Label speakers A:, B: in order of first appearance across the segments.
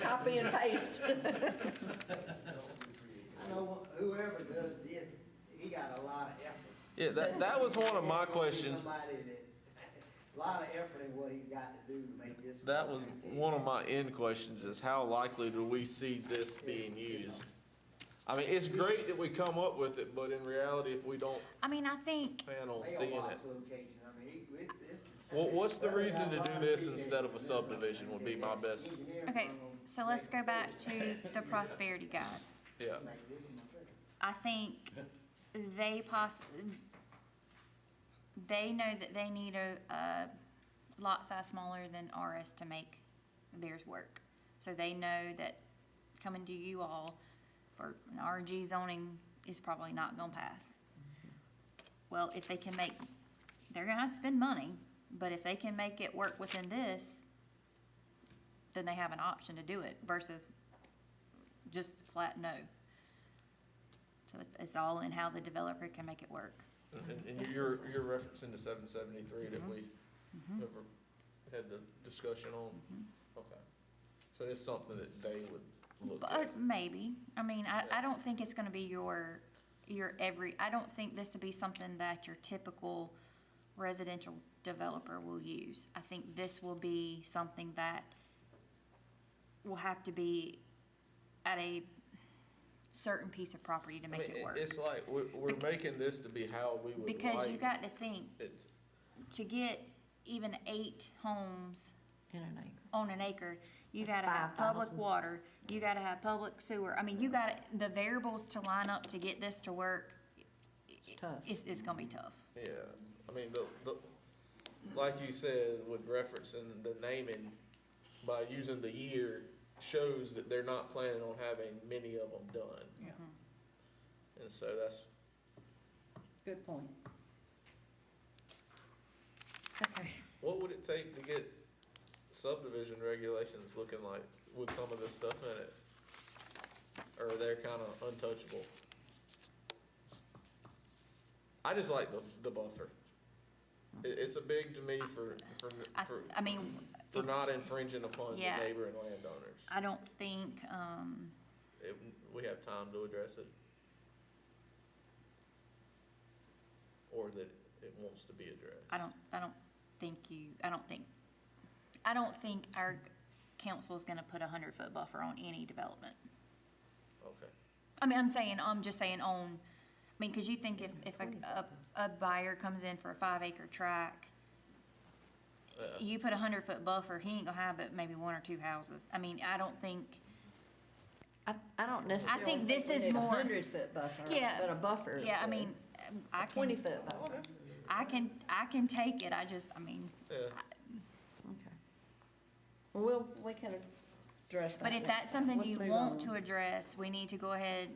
A: Copy and paste.
B: I know whoever does this, he got a lot of effort.
C: Yeah, that, that was one of my questions.
B: Somebody that, a lot of effort in what he's got to do to make this.
C: That was one of my end questions is how likely do we see this being used? I mean, it's great that we come up with it, but in reality, if we don't
D: I mean, I think,
C: plan on seeing it.
B: Mailbox location, I mean, he- it- this. is-
C: Well, what's the
B: There's
C: reason
B: a
C: to
B: lot
C: do
B: of
C: this
B: people that
C: instead of a
B: do something
C: subdivision would be
B: that
C: my
B: the
C: best-
B: engineer
D: okay,
B: firm
D: so let's go back
B: makes
D: to the prosperity guys.
C: Yeah,
B: this a mistake.
D: I think they poss, they know that they need a, a lot size smaller than ours to make theirs work. So they know that coming to you all for an RG zoning is probably not gonna pass. Well, if they can make, they're gonna have to spend money, but if they can make it work within this, then they have an option to do it versus just flat no. So it's, it's all in how the developer can make it work.
C: and, and you're, you're referencing the seven seventy-three that we
D: Mm-hmm.
C: ever had the discussion on? Okay, so it's something that they would look at.
D: But uh, maybe, I mean, I,
C: Yeah.
D: I don't think it's gonna be your, your every, I don't think this would be something that your typical residential developer will use. I think this will be something that will have to be at a certain piece of property to
C: I
D: make
C: mean,
D: it
C: it-
D: work.
C: it's like, we're, we're
D: Bec-
C: making this to be how we would like.
D: Because you got to think,
C: It's,
D: to get even eight homes
A: In an acre.
D: on an acre, you
A: That's
D: gotta have public
A: 5,000.
D: water, you gotta have public sewer, I mean, you gotta, the variables to line up to get this to work. It's
A: tough.
D: It's, it's gonna be tough.
C: Yeah, I mean, the, the, like you said, with referencing the naming, by using the year, shows that they're not planning on having many of them done. Yeah. And so that's,
A: Good point. Okay.
C: what would it take to get subdivision regulations looking like with some of this stuff in it? Or they're kind of untouchable? I just like the, the buffer. It, it's a big to me for, for,
D: I,
C: for.
D: I mean,
C: For not infringing upon the
D: Yeah.
C: neighboring landowners.
D: I don't think, um,
C: It, we have time to address it. Or that it wants to be addressed.
D: I don't, I don't think you, I don't think, I don't think our council's gonna put a hundred-foot buffer on any development.
C: Okay.
D: I mean, I'm saying, I'm just saying on, I mean, because you think if, if a, a a buyer comes in for a five acre tract,
C: Uh,
D: you put a hundred foot buffer, he ain't gonna have but maybe one or two houses. I mean, I don't think,
A: I, I don't necessarily.
D: think this is more-
A: Hundred foot buffer,
D: yeah.
A: but a buffer is
D: Yeah, I
A: good.
D: mean, I
A: Twenty
D: can,
A: foot buffer,
D: I can, I can take it, I just, I mean,
C: Yeah,
A: okay. Well, we can address that.
D: but if
A: next
D: that's
A: time.
D: something
A: Let's
D: you
A: move
D: want to
A: on.
D: address, we need to go ahead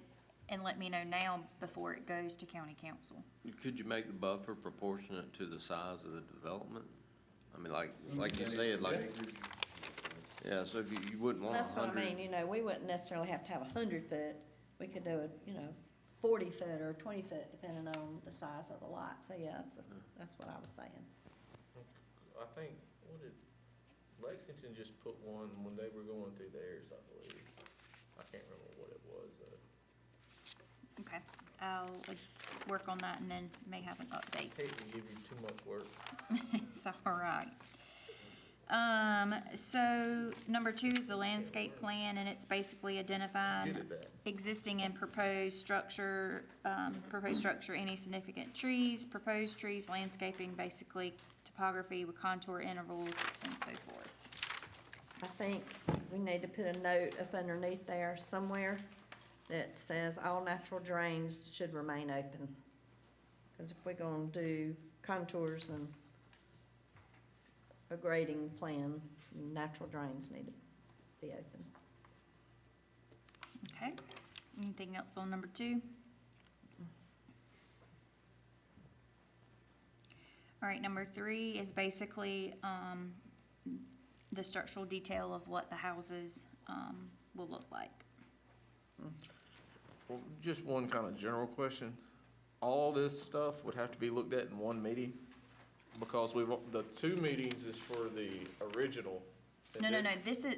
D: and let me know now before it goes to county council.
E: Could you make the buffer proportionate to the size of the development? I mean, like, like you said, like, yeah, so if you, you wouldn't want a
A: That's what I mean,
E: hundred.
A: you know, we wouldn't necessarily have to have a hundred foot, we could do a, you know, forty foot or twenty foot, depending on the size of the lot, so yeah, that's, that's what I was saying.
C: I think, what did, Lexington just put one when they were going through theirs, I believe. I can't remember what it was, uh,
D: Okay, I'll work on that and then may have an update.
C: hate to give you too much work.
D: It's all right. Um, so number two is the landscape plan, and it's basically identifying
C: Get at that.
D: existing and proposed structure, um, proposed structure, any significant trees, proposed trees, landscaping, basically topography with contour intervals and so forth.
A: I think we need to put a note up underneath there somewhere that says all natural drains should remain open. Because if we're gonna do contours and a grading plan, natural drains need to be open.
D: Okay, anything else on number two? All right, number three is basically, um, the structural detail of what the houses, um, will look like.
C: Well, just one kind of general question. All this stuff would have to be looked at in one meeting? Because we've, the two meetings is for the original. and
D: No, no,
C: then-
D: no, this is,